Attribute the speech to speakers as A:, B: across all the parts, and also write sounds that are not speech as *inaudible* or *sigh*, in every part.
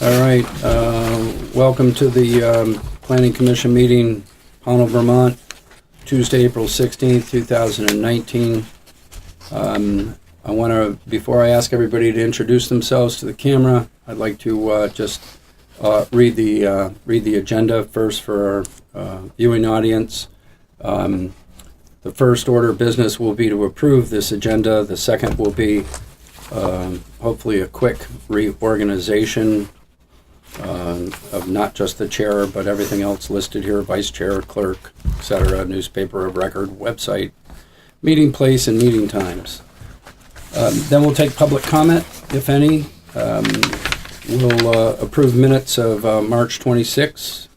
A: All right, uh, welcome to the um, Planning Commission meeting, Pownell, Vermont, Tuesday, April 16th, 2019. Um, I want to, before I ask everybody to introduce themselves to the camera, I'd like to uh, just uh, read the, uh, read the agenda first for our uh, viewing audience. Um, The first order of business will be to approve this agenda. The second will be um, hopefully a quick reorganization um, of not just the chair, but everything else listed here, vice chair, clerk, et cetera, newspaper of record, website, meeting place, and meeting times. Um, Then we'll take public comment, if any. Um, We'll uh, approve minutes of uh, March 26,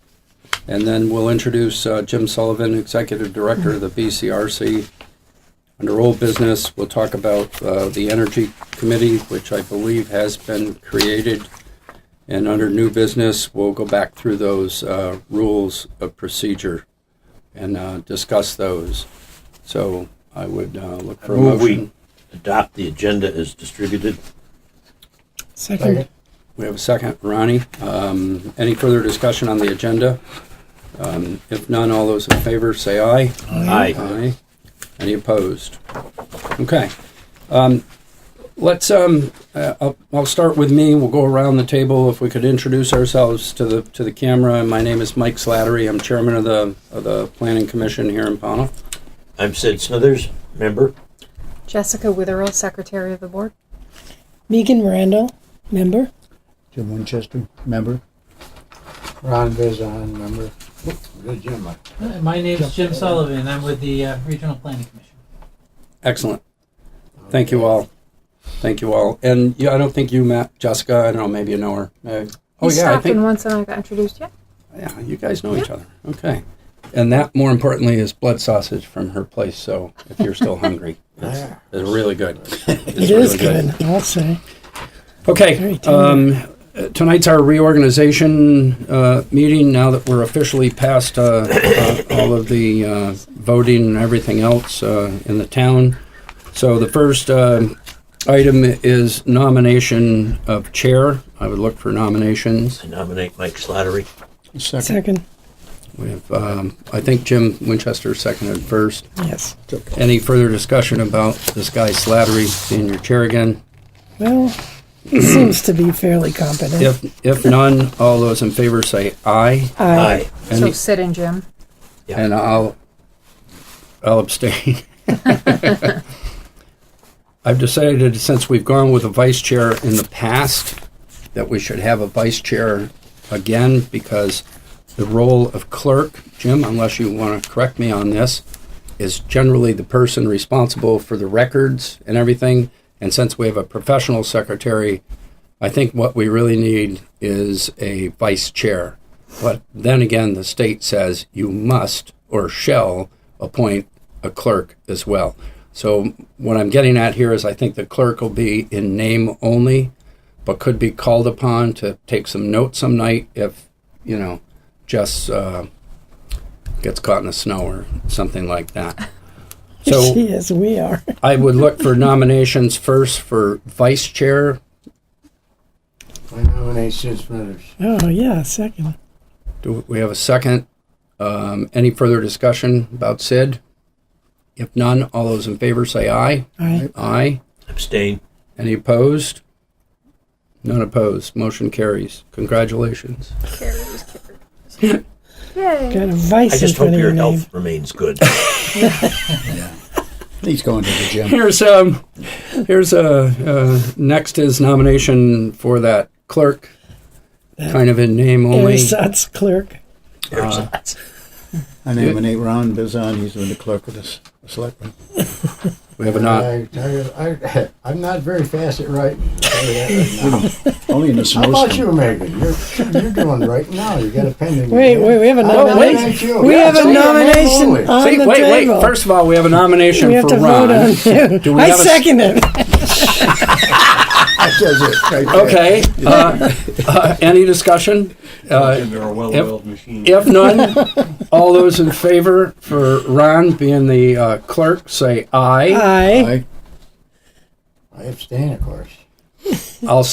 A: and then we'll introduce uh, Jim Sullivan, Executive Director of the BCRC, under old business, we'll talk about uh, the Energy Committee, which I believe has been created. And under new business, we'll go back through those uh, rules of procedure and uh, discuss those. So I would uh, look for a
B: Move we-
A: motion.
B: adopt the agenda as distributed.
C: Second.
A: We have a second, Ronnie. Um, Any further discussion on the agenda? Um, If none, all those in favor, say aye.
B: Aye.
A: Aye. Any opposed? Okay. Um, let's, um, uh, I'll, I'll start with me. We'll go around the table. If we could introduce ourselves to the, to the camera. My name is Mike Slattery. I'm chairman of the, of the planning commission here in Pownell.
B: I'm Sid Smithers, member.
D: Jessica Witherell, Secretary of the Board.
C: Megan Randall, member.
E: Jim Winchester, member.
F: Ron Vizon, member. Good Jim.
G: Hi, My name's Jim Sullivan. I'm with the uh, Regional Planning Commission.
A: Excellent. Thank you all. Thank you all. And yeah, I don't think you met Jessica. I don't know. Maybe you know her. Uh, oh
D: you
A: yeah, I
D: stopped in
A: think
D: once and I got introduced yet.
A: yeah, you guys know each other. Okay. And that, more importantly, is blood sausage from her place. So if you're still hungry, it's, *laughs* it's really good.
C: It is good, I'll say.
A: Okay,
C: Very tender.
A: um, uh, tonight's our reorganization, uh, meeting, now that we're officially past, uh, uh, all of the, uh, voting and everything else, uh, in the town. So the first, um item is nomination of chair. I would look for nominations.
B: I nominate Mike Slattery.
E: Second.
C: Second,
A: We have, um, I think Jim Winchester seconded first.
C: yes.
A: Any further discussion about this guy Slattery being your chair again?
C: Well, he seems to be fairly competent.
A: If, if none, all those in favor say aye.
C: *laughs* Aye.
D: so
A: Any-
D: sit in, Jim.
A: And I'll, I'll abstain. I've decided, since we've gone with a vice chair in the past, that we should have a vice chair again, because the role of clerk, Jim, unless you want to correct me on this, is generally the person responsible for the records and everything. And since we have a professional secretary, I think what we really need is a vice chair. But then again, the state says you must or shall appoint a clerk as well. So what I'm getting at here is I think the clerk will be in name only, but could be called upon to take some notes some night if, you know, Jess uh, gets caught in the snow or something like that. So
C: She is, we are.
A: I would look for nominations first for vice chair.
F: I nominate Sid Smithers.
C: Oh, yeah, second.
A: Do we have a second? Um, any further discussion about Sid? If none, all those in favor say aye.
C: Aye.
A: Aye.
B: Abstain.
A: Any opposed? None opposed. Motion carries. Congratulations.
D: Yay.
C: Got
B: I
C: a vice in
B: just hope
C: front of
B: your
C: your name.
B: health remains good.
E: He's going to the
A: *laughs*
E: gym.
A: Here's um, here's uh, uh, next is nomination for that clerk, kind of in name only.
C: Ersatz clerk.
B: There's
C: Uh,
E: I nominate Ron Bizon. He's been the clerk of the s- selectmen.
A: We have a not.
F: I, I, *laughs* I, am not very fast at writing. I'll
E: *laughs*
F: tell you that right now.
E: Only in the
F: How about you,
E: snowstorm.
F: Megan? You're, you're doing right now. You got a pending.
C: Wait, wait, we have a
A: wait.
C: nomination. We have a nomination on
A: See,
C: the
A: wait, wait.
C: table.
A: First of all, we have a nomination
C: We have
A: for
C: to
A: Ron.
C: vote on him.
A: Do we
C: I
A: have a s-
C: second it.
E: That does it. right there.
A: Okay. uh, *laughs* uh, any discussion? Uh, if, if none, all those in favor for Ron being the uh, clerk say aye.
C: Aye.
E: Aye.
F: I abstain, of course.
A: I'll